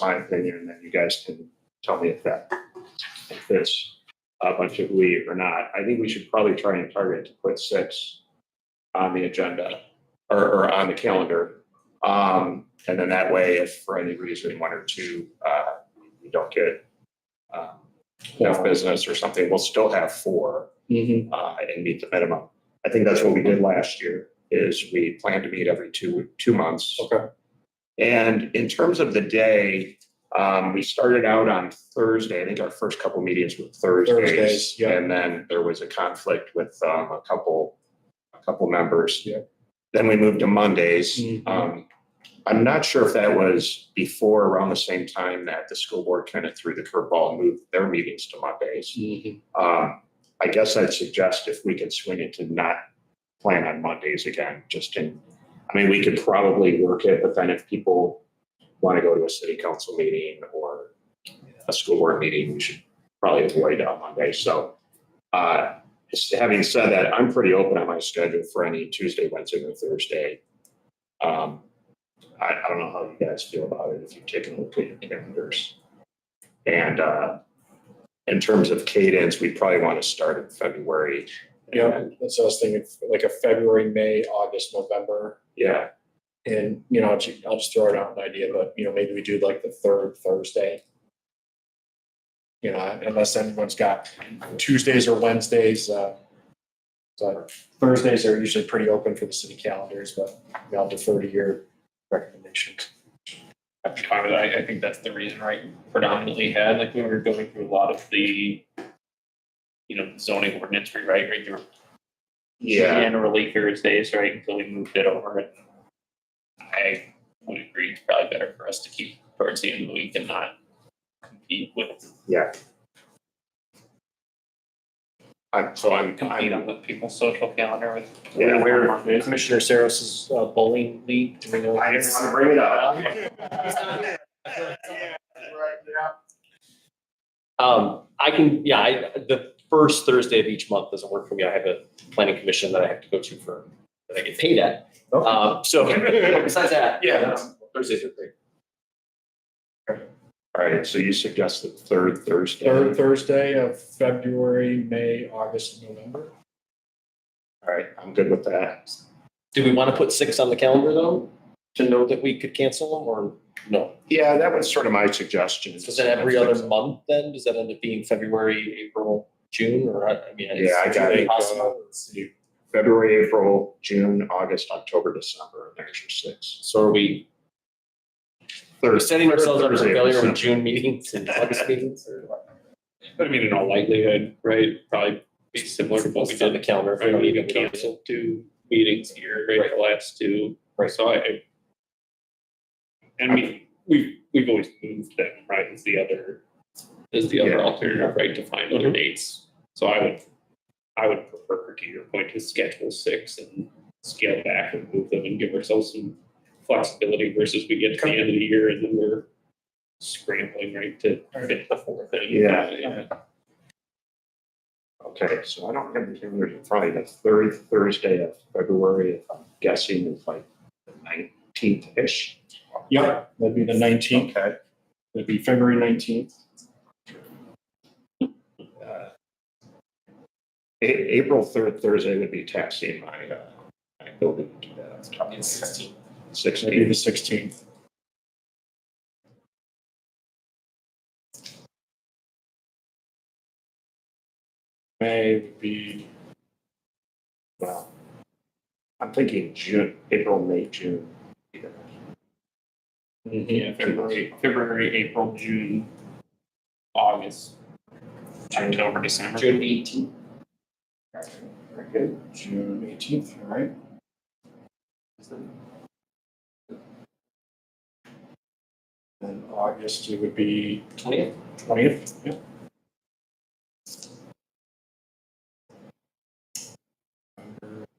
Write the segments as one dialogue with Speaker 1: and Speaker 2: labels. Speaker 1: my opinion, and then you guys can tell me if that, if there's a bunch of leave or not. I think we should probably try and target to put six on the agenda or, or on the calendar. Um, and then that way, if for any reason, one or two, uh, you don't get, um, enough business or something, we'll still have four
Speaker 2: Mhm.
Speaker 1: uh, and meet the minimum. I think that's what we did last year, is we planned to meet every two, two months.
Speaker 2: Okay.
Speaker 1: And in terms of the day, um, we started out on Thursday. I think our first couple meetings were Thursdays.
Speaker 2: Thursdays, yeah.
Speaker 1: And then there was a conflict with, um, a couple, a couple members.
Speaker 2: Yeah.
Speaker 1: Then we moved to Mondays.
Speaker 2: Mhm.
Speaker 1: Um, I'm not sure if that was before around the same time that the school board kind of threw the curveball and moved their meetings to Mondays.
Speaker 2: Mhm.
Speaker 1: Um, I guess I'd suggest if we could swing it to not plan on Mondays again, just in, I mean, we could probably work it, but then if people want to go to a city council meeting or a school board meeting, we should probably avoid on Monday. So, uh, s- having said that, I'm pretty open on my schedule for any Tuesday, Wednesday, or Thursday. Um, I, I don't know how you guys feel about it, if you've taken a look at your calendars. And, uh, in terms of cadence, we probably want to start in February.
Speaker 2: Yeah, that's what I was thinking, like a February, May, August, November.
Speaker 1: Yeah,
Speaker 2: And, you know, I'll ju- I'll just throw it out an idea, but, you know, maybe we do like the third Thursday. You know, unless anyone's got Tuesdays or Wednesdays. uh, So Thursdays are usually pretty open for the city calendars, but I'll defer to your recommendations.
Speaker 3: I'd be fine with that. I, I think that's the reason, right? Predominantly had, like when we were going through a lot of the, you know, zoning ordinance, right, right? There were
Speaker 1: yeah,
Speaker 3: Generally Thursdays, right, until we moved it over. and I would agree, it's probably better for us to keep towards the end of the week and not compete with,
Speaker 1: yeah. I'm, so I'm,
Speaker 3: compete
Speaker 1: I'm,
Speaker 3: on the people's social calendar with.
Speaker 1: Yeah, we're-
Speaker 2: Commissioner Saros's uh, bowling league, do we know?
Speaker 1: I didn't want to bring it up.
Speaker 4: Um, I can, yeah, I, the first Thursday of each month doesn't work for me. I have a planning commission that I have to go to for, that I get paid at.
Speaker 2: Okay.
Speaker 4: Um, so besides that.
Speaker 2: Yeah.
Speaker 4: um, Thursdays are great.
Speaker 1: All right, so you suggest the third Thursday?
Speaker 2: Third Thursday of February, May, August, and November.
Speaker 1: All right, I'm good with that.
Speaker 4: Do we want to put six on the calendar though, to know that we could cancel them or no?
Speaker 1: Yeah, that was sort of my suggestion.
Speaker 4: Is it every other month then? Does that end up being February, April, June, or I I mean? it's-
Speaker 1: Yeah, I got it.
Speaker 4: Possible.
Speaker 1: February, April, June, August, October, December, and there's your six.
Speaker 4: So are we
Speaker 1: Third-
Speaker 4: we're setting ourselves up for
Speaker 1: Thursday of
Speaker 4: failure with
Speaker 1: December.
Speaker 4: June meetings and August meetings or what?
Speaker 3: But I mean, in all likelihood, right, probably be similar to what we
Speaker 4: What's on the
Speaker 3: did.
Speaker 4: calendar? if we
Speaker 3: Right,
Speaker 4: don't
Speaker 3: we
Speaker 4: need it, we don't need it.
Speaker 3: canceled two meetings here, right, the last two.
Speaker 4: Right.
Speaker 3: So I- I. And we, we've, we've always moved them, right, is the other, is the
Speaker 1: Yeah.
Speaker 3: other alternative, right, to find other dates. So I would, I would prefer to your point to schedule six and scale back and move them and give ourselves some flexibility versus we get to the end of the year and then we're scrambling, right, to fit the fourth thing.
Speaker 1: Yeah.
Speaker 3: Yeah.
Speaker 1: Okay, so I don't have the calendar in front of me. The third Thursday of February, if I'm guessing, is like the nineteenth-ish.
Speaker 2: Yeah, that'd be the nineteenth,
Speaker 1: Okay.
Speaker 2: that'd be February nineteenth.
Speaker 1: Uh, A- April third Thursday would be taxing my, uh, my building. Sixteen.
Speaker 2: That'd be
Speaker 1: Sixteen.
Speaker 2: the sixteenth. May would be,
Speaker 1: Well, I'm thinking June, April, May, June.
Speaker 3: Yeah, February, February, April, June, August, October, December.
Speaker 4: June eighteenth.
Speaker 2: very good, June eighteenth, all right. And August, it would be
Speaker 4: Twentieth?
Speaker 2: twentieth, yeah.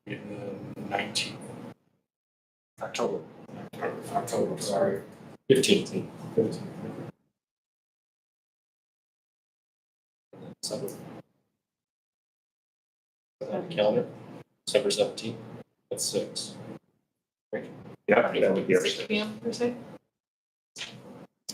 Speaker 2: Nineteenth. October. October, sorry.
Speaker 4: Fifteenth. December. On the calendar, December seventeenth, that's six.
Speaker 1: Yeah, that would be our
Speaker 5: Six P M per se?